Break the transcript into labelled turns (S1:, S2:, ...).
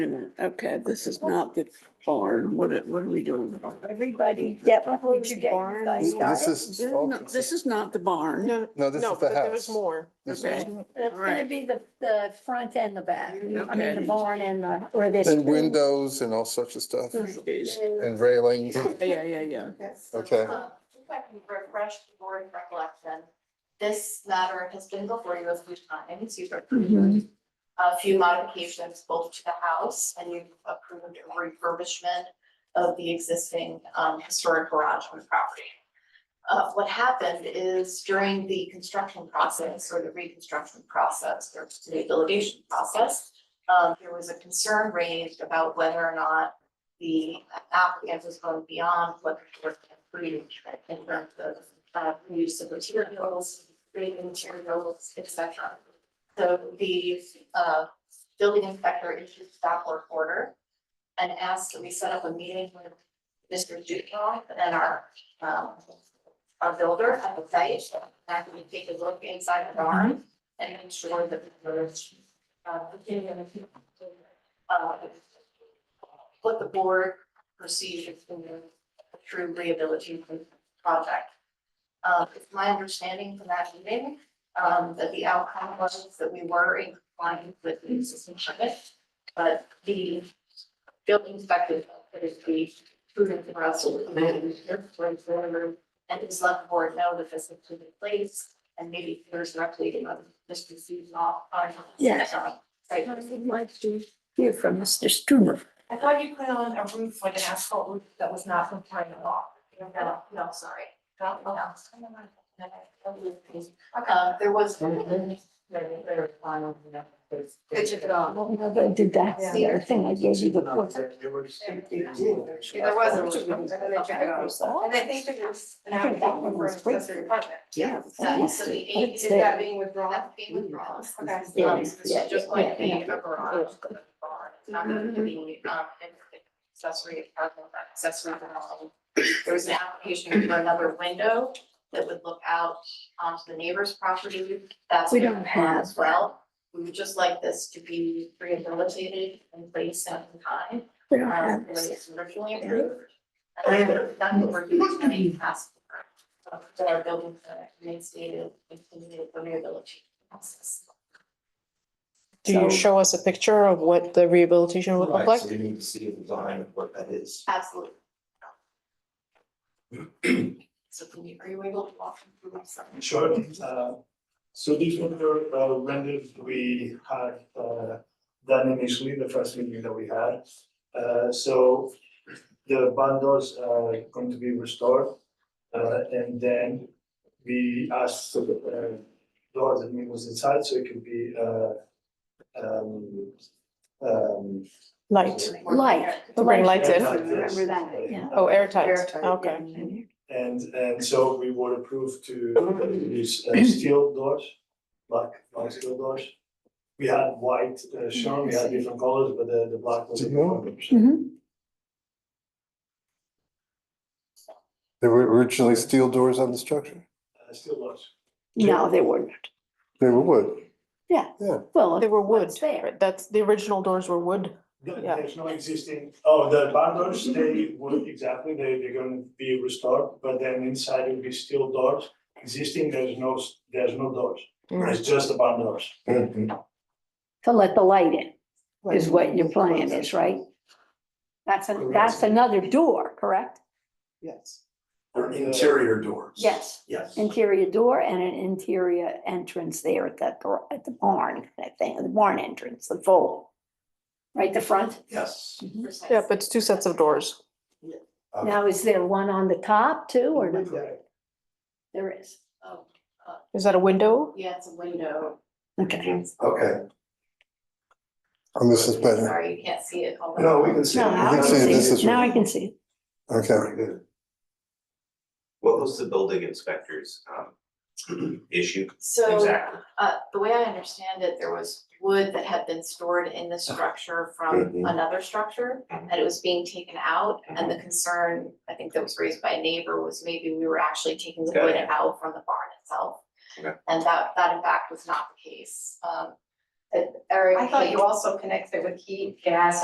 S1: minute. Okay, this is not the barn. What, are- what are we doing?
S2: Everybody, Deborah, would you get you guys
S3: This
S2: started?
S3: is,
S1: This is not the barn.
S4: No,
S3: no, this
S4: no,
S3: is
S4: but
S3: the
S4: there was
S3: house.
S4: more.
S3: This-
S1: Okay.
S2: It's gonna
S1: Alright.
S2: be the, the front and the back. I mean, the
S1: Okay.
S2: barn and the, or this.
S3: And windows and all such of stuff
S1: Yeah,
S3: and railings.
S1: yeah, yeah, yeah.
S3: Okay.
S5: Uh, If I can refresh the board recollection, this matter has been before you a few times. You've approved a few modifications both to the house and you've approved a refurbishment of the existing um, historic garage on the property. Uh, What happened is during the construction process or the reconstruction process or the rehabilitation process, um, there was a concern raised about whether or not the applicant was going beyond what the board can approve in terms of uh, use of materials, grading materials, et cetera. So the uh, building inspector issued a stop work order and asked that we set up a meeting with Mr. Dukoff and our um, our builder at the site, that we take a look inside the barn and ensure that the village uh, uh, what the board perceives as being a true rehabilitation project. Uh, it's my understanding from that meeting, um, that the outcome was that we were in compliance with the existing permit, but the building inspector felt that it'd be prudent for us to come in and hear from the owner and just let the board know that this is in place, and maybe there's an update on Mr. Season off on.
S2: Yes.
S5: Right.
S2: I would like to hear from Mr. Stumer.
S5: I thought you put on a roof with an asphalt roof that was not compliant at all. No, no, sorry. No, no. Uh, there was. Good to go.
S2: Well, no, they did that, the other thing I gave you before.
S5: There was a roof.
S2: And I think
S5: there was an
S2: I think that one was great. accessory Yeah.
S5: So so the eight, is
S2: It's
S5: that
S2: there.
S5: being withdrawn? That's being withdrawn. Okay.
S2: Yeah,
S5: Um, so This
S2: yeah,
S5: is just
S2: yeah,
S5: like the
S2: yeah.
S5: a garage. It's not going to be, um, an accessory apartment, an accessory dwelling. There was an application for another window that would look out onto the neighbor's property. That's.
S2: We
S5: been
S2: don't
S5: withdrawn as
S2: have
S5: Well, we would just like this to be rehabilitated and placed at the time.
S2: We don't
S5: Um,
S2: have
S5: it was originally
S2: Yeah.
S5: approved. And that's what we're using any task for, uh, that our building permit reinstated, continued the rehabilitation process.
S4: Do you
S1: So-
S4: show us a picture of what the rehabilitation would look
S6: Right,
S4: like?
S6: So you need to see a design of what that is.
S5: Absolutely. So can you, are you able to walk me through myself?
S7: Sure. Uh, So these were the uh, renders we had uh, done initially, the first meeting that we had. Uh, So the bundles are going to be restored. uh, And then we asked for the uh, door that was inside, so it could be uh, um, um,
S4: Light,
S2: Light.
S4: To bring lights in?
S2: Remember that, yeah.
S4: oh, airtight, okay.
S7: And and so we were approved to use uh, steel doors, black, black steel doors. We had white uh, shown, we had different colors, but the the black was. the preferred.
S2: Mm-hmm.
S3: There were originally steel doors on the structure.
S7: Uh, Steel doors.
S2: No, they weren't.
S3: They were wood.
S2: Well,
S4: They were wood,
S2: what's there?
S4: right? that's, the original doors were wood.
S7: Th-
S4: Yeah.
S7: There's no existing, oh, the barn doors, they would, exactly, they they're gonna be restored, but then inside will be steel doors. Existing, there's no, s- there's no doors,
S4: Mm.
S7: it's just the barn doors.
S2: to let the light in is what your plan is, right? That's, a- that's another door, correct?
S8: Yes.
S7: uh,
S6: Or interior doors.
S2: Yes.
S6: Yes.
S2: Interior door and an interior entrance there at that, gar- at the barn, that thing, the barn entrance, the fold. Right, the front.
S6: Yes.
S4: Yeah, but it's two sets of doors.
S6: Uh,
S2: Now, is there one on the top too, or not?
S7: Correct.
S2: There is.
S5: Oh,
S4: Is that a window?
S5: yeah, it's a window.
S2: Okay.
S6: Okay,
S3: And Oh, this is better.
S5: Sorry, you can't see it. all the-
S6: no, we can see.
S2: No,
S6: it.
S2: now I
S3: can see it.
S2: can
S3: This
S2: see,
S3: is-
S2: now I can see.
S3: Okay.
S6: Very good.
S9: What was the building inspector's um issue
S5: So,
S9: exactly?
S5: uh, the way I understand it, there was wood that had been stored in the structure from
S6: Mhm.
S5: another structure. And it was being taken out and the concern, I think that was raised by a neighbor, was maybe we were actually taking the wood
S9: Okay.
S5: out from the barn itself.
S9: Okay.
S5: And that, that in fact was not the case. Um, Eric.
S8: I thought you also connected with heat, gas,